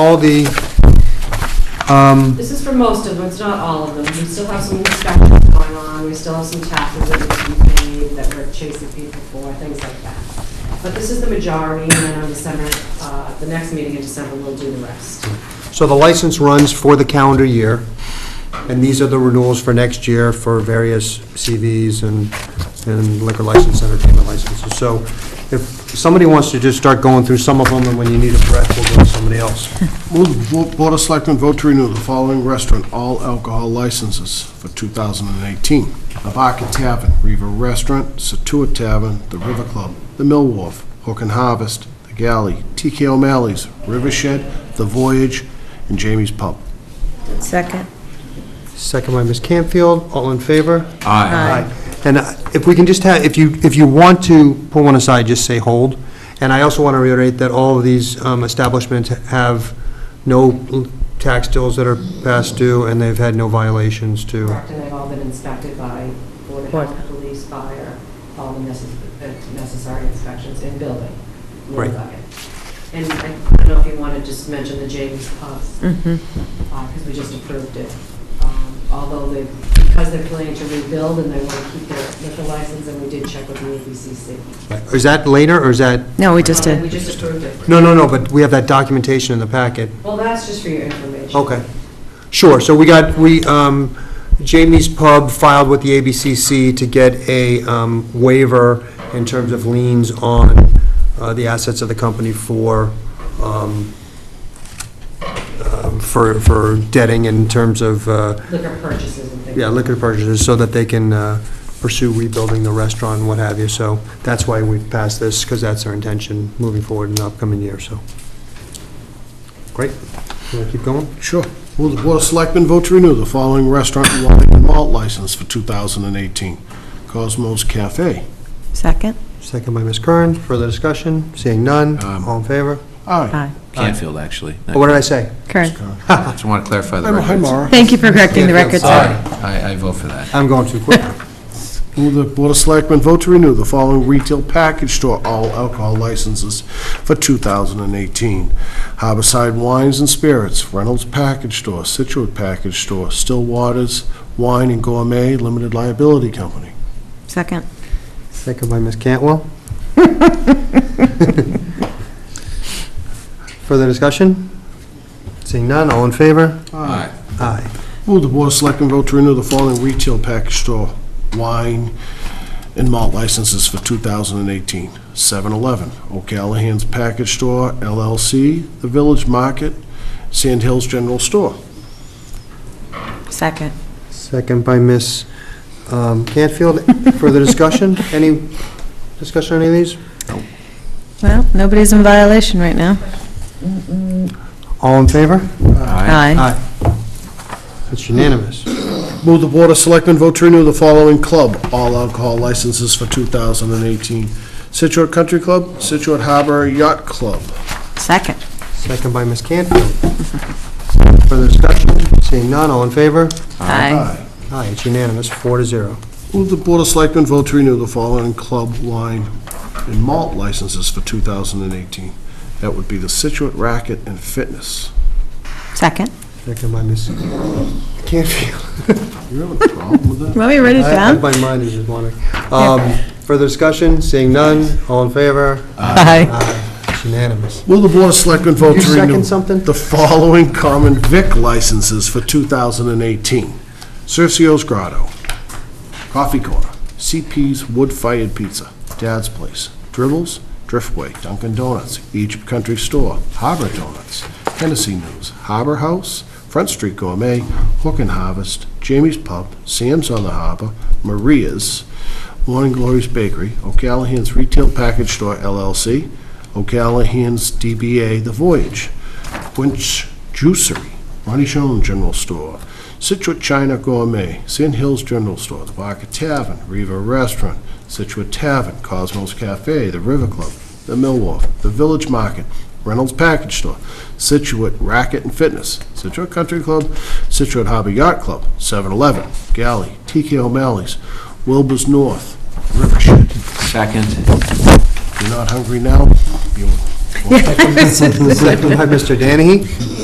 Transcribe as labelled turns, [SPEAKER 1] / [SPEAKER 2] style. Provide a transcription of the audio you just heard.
[SPEAKER 1] all the, um,
[SPEAKER 2] This is for most of them, it's not all of them. We still have some inspections going on, we still have some taxes that need to be paid that we're chasing people for, things like that. But this is the majority, and then on December, uh, the next meeting in December, we'll do the rest.
[SPEAKER 1] so the license runs for the calendar year, and these are the renewals for next year for various CVs and and liquor license, entertainment licenses. So if somebody wants to just start going through some of them, and when you need a breath, we'll go to somebody else.
[SPEAKER 3] Move the Vo- Board of Selectmen vote to renew the following restaurant all alcohol licenses for 2018. The Barker Tavern, Riva Restaurant, Satua Tavern, The River Club, The Mill Wharf, Hook and Harvest, The Galley, TK O'Malley's, River Shed, The Voyage, and Jamie's Pub.
[SPEAKER 4] Second.
[SPEAKER 1] Second by Ms. Campfield, all in favor?
[SPEAKER 4] Aye.
[SPEAKER 1] And uh, if we can just have, if you, if you want to pull one aside, just say hold. And I also want to reiterate that all of these um, establishments have no tax bills that are past due, and they've had no violations to,
[SPEAKER 2] Correct, and they've all been inspected by Board of
[SPEAKER 4] Board.
[SPEAKER 2] Health, Police, Fire, all the necess- the necessary inspections in building. No
[SPEAKER 1] Right.
[SPEAKER 2] bucket. And I I don't know if you want to just mention the James uh, Pub,
[SPEAKER 4] Mm-hmm.
[SPEAKER 2] because um, we just approved it. Um, Although they, because they're planning to rebuild and they want to keep their liquor license, and we did check with the ABCC.
[SPEAKER 1] is that later, or is that,
[SPEAKER 4] No, we just
[SPEAKER 2] Um, We
[SPEAKER 4] did.
[SPEAKER 2] just approved it.
[SPEAKER 1] no, no, no, but we have that documentation in the packet.
[SPEAKER 2] Well, that's just for your information.
[SPEAKER 1] Okay. Sure, so we got, we, um, Jamie's Pub filed with the ABCC to get a um, waiver in terms of liens on uh, the assets of the company for, um, um, for, for debting in terms of, uh,
[SPEAKER 2] Liquor purchases and things.
[SPEAKER 1] yeah, liquor purchases, so that they can uh, pursue rebuilding the restaurant and what have you. So that's why we passed this, because that's our intention moving forward in the upcoming year, so. Great. You want to keep going?
[SPEAKER 3] Sure. Will the Board of Selectmen vote to renew the following restaurant wine and malt license for 2018? Cosmos Cafe.
[SPEAKER 4] Second.
[SPEAKER 1] Second by Ms. Kern. Further discussion? Seeing none.
[SPEAKER 3] Um,
[SPEAKER 1] All in favor?
[SPEAKER 3] Aye.
[SPEAKER 4] Aye.
[SPEAKER 5] Canfield, actually.
[SPEAKER 1] Oh, What did I say?
[SPEAKER 4] Correct.
[SPEAKER 5] Just want to clarify the record.
[SPEAKER 3] Hi, Mara.
[SPEAKER 4] Thank you for correcting the record,
[SPEAKER 5] Sorry,
[SPEAKER 4] sir.
[SPEAKER 5] I, I vote for that.
[SPEAKER 1] I'm going too quick.
[SPEAKER 3] Will the Board of Selectmen vote to renew the following retail package store all alcohol licenses for 2018? Harborside Wines and Spirits, Reynolds Package Store, Situate Package Store, Stillwater's Wine and Gourmet Limited Liability Company.
[SPEAKER 4] Second.
[SPEAKER 1] Second by Ms. Cantwell. Further discussion? Seeing none. All in favor?
[SPEAKER 5] Aye.
[SPEAKER 1] Aye.
[SPEAKER 3] Will the Board of Selectmen vote to renew the following retail package store wine and malt licenses for 2018? 7-Eleven, O'Callahan's Package Store LLC, The Village Market, Sand Hills General Store.
[SPEAKER 4] Second.
[SPEAKER 1] Second by Ms. um, Cantfield. Further discussion? Any discussion on any of these?
[SPEAKER 4] Well, nobody's in violation right now.
[SPEAKER 1] All in favor?
[SPEAKER 4] Aye.
[SPEAKER 1] It's unanimous.
[SPEAKER 3] Move the Board of Selectmen vote to renew the following club all alcohol licenses for 2018. Situate Country Club, Situate Harbor Yacht Club.
[SPEAKER 4] Second.
[SPEAKER 1] Second by Ms. Cantfield. Further discussion? Seeing none. All in favor?
[SPEAKER 4] Aye.
[SPEAKER 1] Aye. It's unanimous, four to zero.
[SPEAKER 3] Move the Board of Selectmen vote to renew the following club wine and malt licenses for 2018. That would be the Situate Racket and Fitness.
[SPEAKER 4] Second.
[SPEAKER 1] Second by Ms. Canfield.
[SPEAKER 3] You have a problem with that?
[SPEAKER 4] Want me to write it
[SPEAKER 1] I- I-
[SPEAKER 4] down?
[SPEAKER 1] My mind is just wandering. Um, Further discussion, seeing none, all in favor?
[SPEAKER 4] Aye.
[SPEAKER 1] It's unanimous.
[SPEAKER 3] Will the Board of Selectmen vote
[SPEAKER 1] You
[SPEAKER 3] to
[SPEAKER 1] second
[SPEAKER 3] renew
[SPEAKER 1] something?
[SPEAKER 3] the following common vic licenses for 2018? Cercio's Grotto, Coffee Corner, CP's Wood Fired Pizza, Dad's Place, Dribbles, Driftway, Dunkin' Donuts, Egypt Country Store, Harbor Donuts, Tennessee News, Harbor House, Front Street Gourmet, Hook and Harvest, Jamie's Pub, Sam's on the Harbor, Maria's, Morning Glory's Bakery, O'Callahan's Retail Package Store LLC, O'Callahan's DBA The Voyage, Quinch Juicery, Ronnie Shone General Store, Situate China Gourmet, Sand Hills General Store, The Barker Tavern, Riva Restaurant, Situate Tavern, Cosmos Cafe, The River Club, The Mill Wharf, The Village Market, Reynolds Package Store, Situate Racket and Fitness, Situate Country Club, Situate Hobby Yacht Club, 7-Eleven, Galley, TK O'Malley's, Wilbur's North, Rivershed.
[SPEAKER 5] Second.
[SPEAKER 3] If you're not hungry now, you
[SPEAKER 1] Second by Mr. Danahy.